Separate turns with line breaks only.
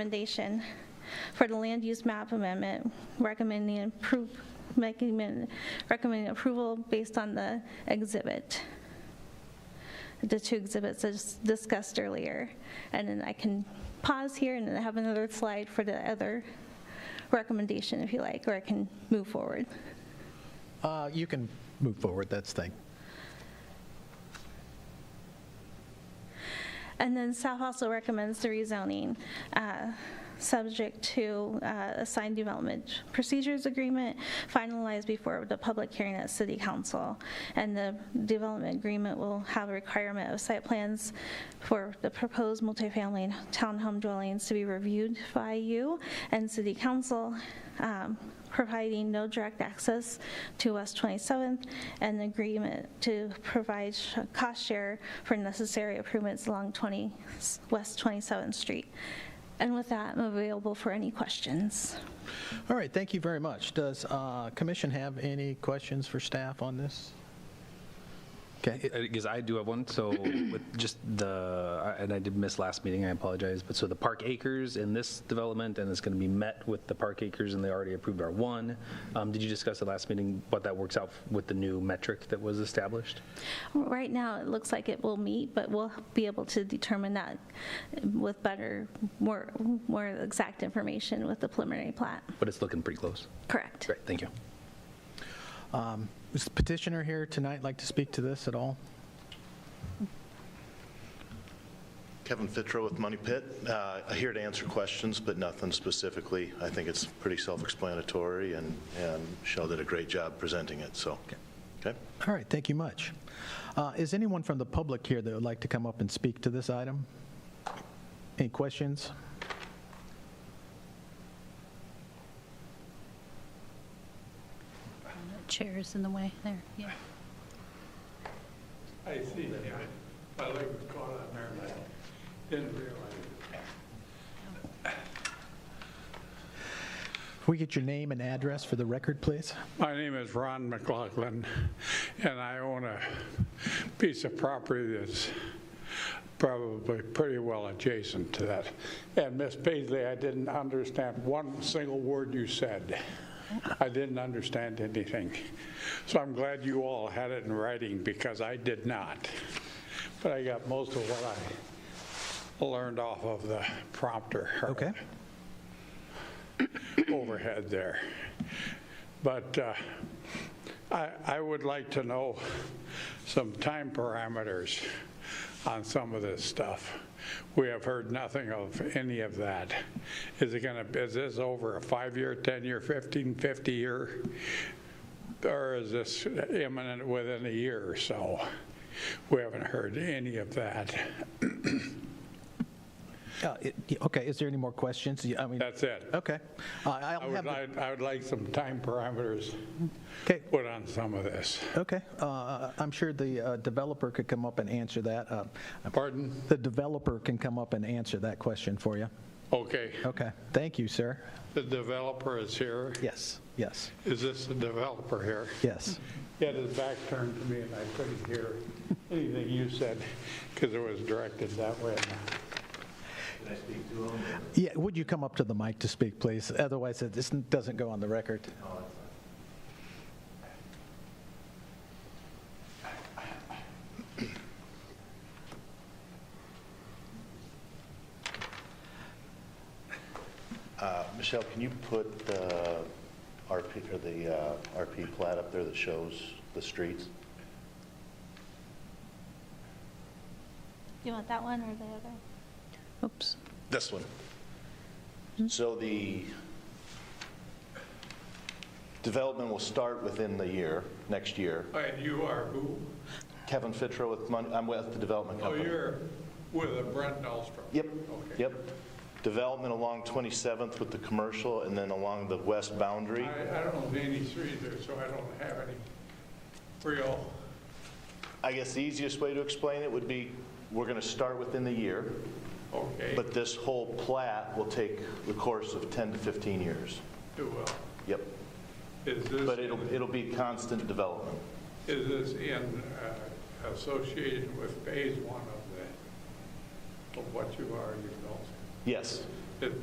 Recommendation for the land use map amendment, recommending approve, making, an- recommending approval based on the exhibit, the two exhibits as discussed earlier. And then I can pause here and then I have another slide for the other recommendation if you like, or I can move forward.
Uh, You can move forward, that's thing.
And then staff also recommends the rezoning, uh, subject to uh, assigned development procedures agreement finalized before the public hearing at city council. And the development agreement will have a requirement of site plans for the proposed multifamily townhome dwellings to be reviewed by you and city council, um, providing no direct access to West 27th, and agreement to provide sh- cost share for necessary improvements along 20, West 27th Street. And with that, I'm available for any questions.
All right, thank you very much. Does uh, commission have any questions for staff on this? Okay,
Because I do have one, so with just the, and I did miss last meeting, I apologize, but so the Park Acres in this development, and it's going to be met with the Park Acres, and they already approved R1. Um, Did you discuss at last meeting what that works out with the new metric that was established?
Right now, it looks like it will meet, but we'll be able to determine that with better, more, more exact information with the preliminary plat.
But it's looking pretty close.
Correct.
Great, thank you.
Is the petitioner here tonight like to speak to this at all?
Kevin Fitro with Money Pit. Uh, Here to answer questions, but nothing specifically. I think it's pretty self-explanatory, and and Michelle did a great job presenting it, so. Okay?
All right, thank you much. Uh, Is anyone from the public here that would like to come up and speak to this item? Any questions?
uh, Chairs in the way there, yeah.
I see, yeah. My leg was caught on there, and I didn't realize it.
If we get your name and address for the record, please?
My name is Ron McLaughlin, and I own a piece of property that's probably pretty well adjacent to that. And Miss Paisley, I didn't understand one single word you said. I didn't understand anything. So I'm glad you all had it in writing, because I did not. But I got most of what I learned off of the prompter.
Okay.
Overhead there. But uh, I, I would like to know some time parameters on some of this stuff. We have heard nothing of any of that. Is it gonna, is this over a five-year, 10-year, 15, 50-year? Or is this imminent within a year or so? We haven't heard any of that.
Uh, it- Okay, is there any more questions? Yeah, I mean,
That's it.
okay. Uh,
I
I'll have,
would
the-
like, I would like some time parameters
okay,
put on some of this.
okay. Uh, I'm sure the uh, developer could come up and answer that. Uh,
Pardon?
The developer can come up and answer that question for you.
Okay,
Okay, thank you, sir.
the developer is here.
Yes, yes,
Is this the developer here?
yes.
He had his back turned to me and I couldn't hear anything you said because it was directed that way.
Yeah, would you come up to the mic to speak, please? Otherwise, it- this doesn't go on the record.
Uh, Michelle, can you put the RP, or the uh, RP plat up there that shows the streets?
You want that one or the other?
Oops.
This one. So the development will start within the year, next year.
And you are who?
Kevin Fitro with Money, I'm with the development
Oh,
company.
you're with a Brent Dahlstrom?
Yep,
Okay.
yep. Development along 27th with the commercial and then along the west boundary.
I, I don't own any street there, so I don't have any real,
I guess the easiest way to explain it would be, we're going to start within the year,
okay,
but this whole plat will take the course of 10 to 15 years.
do well.
Yep.
uh, Is
But
this,
it'll, it'll be constant development.
is this in uh, association with phase one of the, of what you are, you know?
Yes,